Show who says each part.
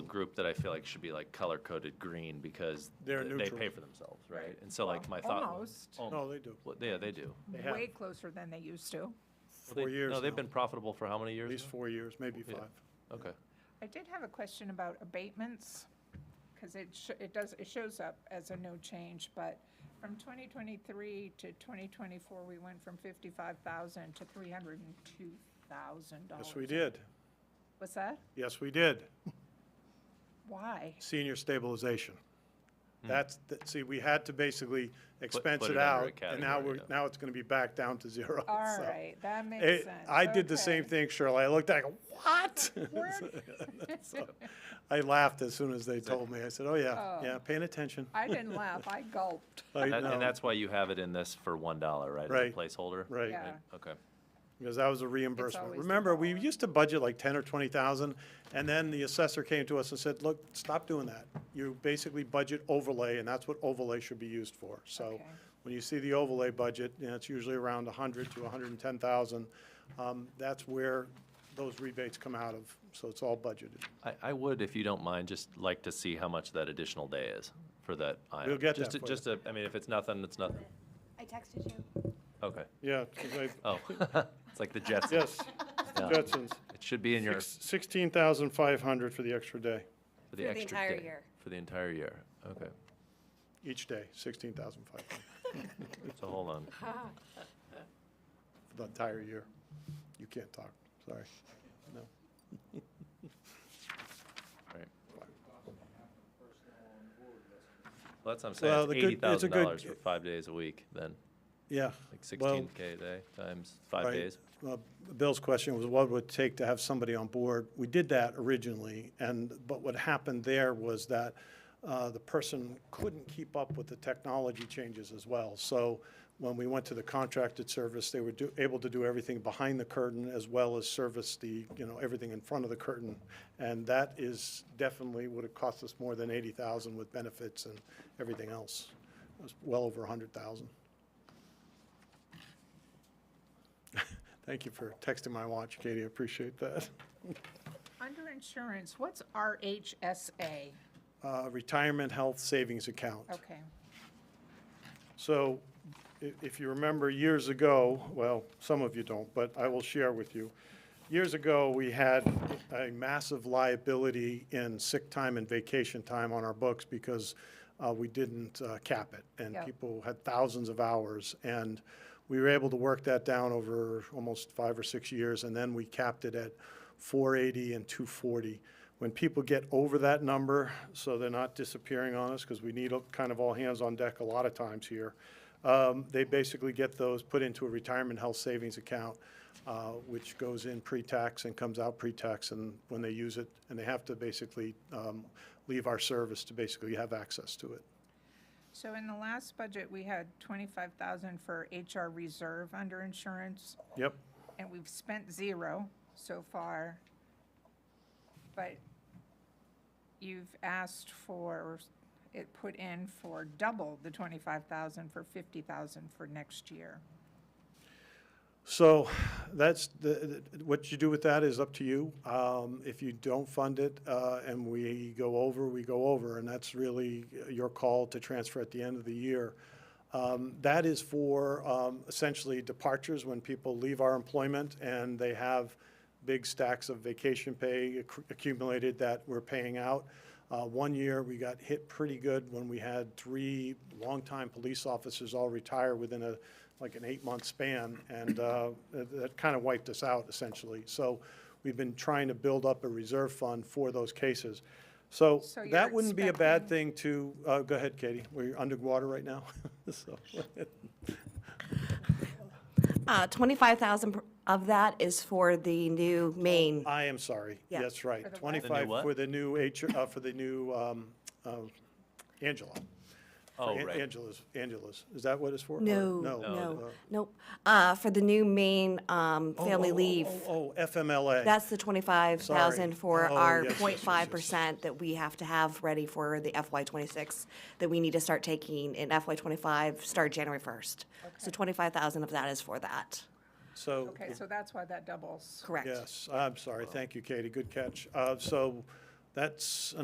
Speaker 1: group that I feel like should be like color coded green because
Speaker 2: They're
Speaker 1: th- they
Speaker 2: neutral.
Speaker 1: pay for themselves, right? And so like my thought. was-
Speaker 3: Almost.
Speaker 1: Oh,
Speaker 2: No, they do.
Speaker 1: well, Yeah, they do.
Speaker 2: They have
Speaker 3: way closer than they used to.
Speaker 1: Well, they-
Speaker 2: Four years
Speaker 1: No, they've
Speaker 2: now.
Speaker 1: been profitable for how many years?
Speaker 2: At least
Speaker 1: now?
Speaker 2: four years, maybe
Speaker 1: Yeah.
Speaker 2: five.
Speaker 1: Okay.
Speaker 3: I did have a question about abatements, because it, sh- it does, it shows up as a no change, but from 2023 to 2024, we went from 55,000 to 302,000 dollars.
Speaker 2: Yes, we did.
Speaker 3: What's that?
Speaker 2: Yes, we did.
Speaker 3: Why?
Speaker 2: Senior stabilization. That's, th- see, we had to basically expense
Speaker 1: Hmm. put
Speaker 2: it
Speaker 1: it under a
Speaker 2: out, and now
Speaker 1: category,
Speaker 2: we're,
Speaker 1: yeah.
Speaker 2: now it's gonna be back down to zero.
Speaker 3: All
Speaker 2: so.
Speaker 3: right, that makes
Speaker 2: uh, It-
Speaker 3: sense.
Speaker 2: I did the same
Speaker 3: Okay.
Speaker 2: thing, Shirley. I looked at it, I go, what?
Speaker 3: Word.
Speaker 2: So, I laughed as soon as they told me. I said, oh, yeah,
Speaker 3: Oh.
Speaker 2: yeah, paying attention.
Speaker 3: I didn't laugh, I gulped.
Speaker 2: I
Speaker 1: That-
Speaker 2: know.
Speaker 1: And that's why you have it in this for one dollar, right? as a
Speaker 2: Right.
Speaker 1: Placeholder?
Speaker 2: Right.
Speaker 3: Yeah.
Speaker 1: Okay.
Speaker 2: Because that was a reimbursement.
Speaker 3: always the
Speaker 2: Remember, we
Speaker 3: dollar.
Speaker 2: used to budget like ten or twenty thousand, and then the assessor came to us and said, look, stop doing that. You basically budget overlay, and that's what overlay should be used for. So
Speaker 3: Okay.
Speaker 2: when you see the overlay budget, and it's usually around a hundred to hundred and ten thousand, um, that's where those rebates come out of, so it's all budgeted.
Speaker 1: I, I would, if you don't mind, just like to see how much that additional day is for that item.
Speaker 2: We'll get
Speaker 1: Just
Speaker 2: that
Speaker 1: to-
Speaker 2: for you.
Speaker 1: Just a, I mean, if it's nothing, it's nothing.
Speaker 4: I texted you.
Speaker 1: Okay.
Speaker 2: Yeah, 'cause I-
Speaker 1: Oh, it's like the Jetsons.
Speaker 2: yes,
Speaker 1: Yeah.
Speaker 2: Jetsons,
Speaker 1: It should be in your,
Speaker 2: sixteen thousand five hundred for the extra day,
Speaker 1: for the
Speaker 4: For the
Speaker 1: extra
Speaker 4: entire
Speaker 1: day.
Speaker 4: year.
Speaker 1: For the entire year. Okay.
Speaker 2: each day, sixteen thousand five hundred
Speaker 1: So hold on.
Speaker 2: for the entire year. You can't talk, sorry. No.
Speaker 1: All right. Well, that's what I'm
Speaker 2: Well,
Speaker 1: saying. It's
Speaker 2: the good-
Speaker 1: eighty
Speaker 2: it's a
Speaker 1: thousand
Speaker 2: good-
Speaker 1: dollars for five days a week then,
Speaker 2: Yeah.
Speaker 1: like
Speaker 2: well,
Speaker 1: sixteen K a day times five
Speaker 2: right.
Speaker 1: days.
Speaker 2: Uh, Bill's question was what would it take to have somebody on board? We did that originally, and, but what happened there was that uh, the person couldn't keep up with the technology changes as well. So when we went to the contracted service, they were do- able to do everything behind the curtain as well as service the, you know, everything in front of the curtain. And that is definitely would have cost us more than 80,000 with benefits and everything else. It was well over 100,000. Thank you for texting my watch, Katie. I appreciate that.
Speaker 3: Under insurance, what's RHSA?
Speaker 2: Uh, Retirement Health Savings Account.
Speaker 3: Okay,
Speaker 2: So i- if you remember years ago, well, some of you don't, but I will share with you. Years ago, we had a massive liability in sick time and vacation time on our books because uh, we didn't uh, cap it. And
Speaker 3: Yeah.
Speaker 2: people had thousands of hours. And we were able to work that down over almost five or six years. And then we capped it at 480 and 240. When people get over that number, so they're not disappearing on us, because we need a- kind of all hands on deck a lot of times here, um, they basically get those put into a retirement health savings account, uh, which goes in pre-tax and comes out pre-tax, and when they use it, and they have to basically um, leave our service to basically have access to it.
Speaker 3: so in the last budget, we had twenty-five thousand for HR reserve under insurance,
Speaker 2: Yep,
Speaker 3: and we've spent zero so far. But you've asked for, it put in for double the twenty-five thousand for fifty thousand for next year.
Speaker 2: so that's, the the- what you do with that is up to you. Um, If you don't fund it uh, and we go over, we go over, and that's really your call to transfer at the end of the year. Um, That is for um, essentially departures, when people leave our employment and they have big stacks of vacation pay accu- accumulated that we're paying out. Uh, One year, we got hit pretty good when we had three longtime police officers all retire within a, like an eight-month span, and uh, that that kind of wiped us out essentially. So we've been trying to build up a reserve fund for those cases. So
Speaker 3: So you're
Speaker 2: that wouldn't be a bad
Speaker 3: expecting-
Speaker 2: thing to, uh, go ahead, Katie, we're underwater right now, so.
Speaker 4: Uh, 25,000 pr- of that is for the new main.
Speaker 2: I am sorry.
Speaker 4: Yeah.
Speaker 2: That's
Speaker 3: For
Speaker 2: right.
Speaker 3: the what?
Speaker 1: The new
Speaker 2: Twenty-five
Speaker 1: what?
Speaker 2: for the new H, uh, for the new, um, uh, Angela. For
Speaker 1: Oh,
Speaker 2: An-
Speaker 1: right.
Speaker 2: Angela's, Angela's. Is that what it's for? Or-
Speaker 4: No,
Speaker 2: uh,
Speaker 4: no, nope. Uh, For the new main um,
Speaker 2: oh,
Speaker 4: family
Speaker 2: oh, oh,
Speaker 4: leave.
Speaker 2: Oh, oh, FMLA.
Speaker 4: That's the 25,000
Speaker 2: Sorry.
Speaker 4: for
Speaker 2: Oh,
Speaker 4: our
Speaker 2: yes, yes, yes, yes.
Speaker 4: 0.5% that we have to have ready for the FY26 that we need to start taking in FY25, start January 1st. So 25,000 of that is for that,
Speaker 2: So,
Speaker 3: Okay, so that's why that doubles.
Speaker 4: correct?
Speaker 2: yes, I'm sorry. Thank you, Katie. Good catch. Uh, so that's